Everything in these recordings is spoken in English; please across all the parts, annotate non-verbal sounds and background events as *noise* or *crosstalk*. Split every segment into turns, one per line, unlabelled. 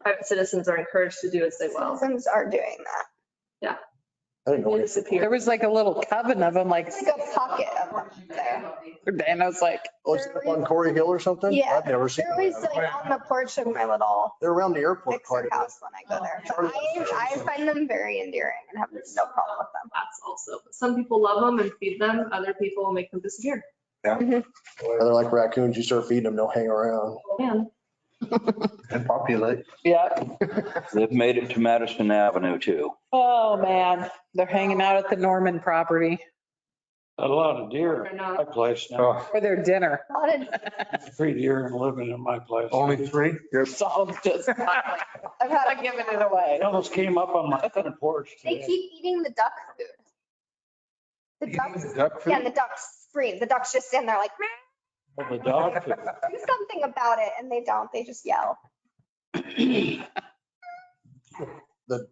private citizens are encouraged to do as they will.
Citizens are doing that.
I didn't know
They
anything.
disappear.
There was like a little coven of them, like,
It's like a pocket of them there.
and I was like,
Oh, is it up on Corey Hill or something?
Yeah.
I've never seen
They're always uh,
them.
like on the porch of my little
They're around the airport quite
fixer
a bit.
house when I go there. But I, I find them very endearing and have no problem with them.
That's also, some people love them and feed them, other people make them disappear.
Or They're like raccoons. You start feeding them, they'll hang around.
Man,
And populate.
yeah,
They've made it to Madison Avenue too.
oh man, they're hanging out at the Norman property
A lot of deer
they're
in
not.
my place
Oh,
now.
for their dinner. *laughs*
A lot of,
Three deer living in my place.
Only three?
So I'm just not
I've had,
not giving it away.
They almost came up on my front porch
they
today.
keep eating the duck food. The ducks,
Duck
yeah, and
food?
the ducks scream. The ducks just stand there like, "Meow."
The dog food.
do something about it. And they don't. They just yell.
The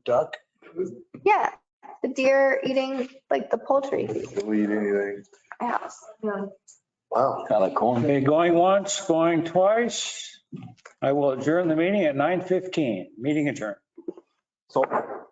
duck,
Yeah. The deer eating like the poultry feed
They'll eat anything.
at my house.
man.
wow.
Kind of corn.
Okay, going once, going twice. I will adjourn the meeting at 9:15. Meeting adjourned.
So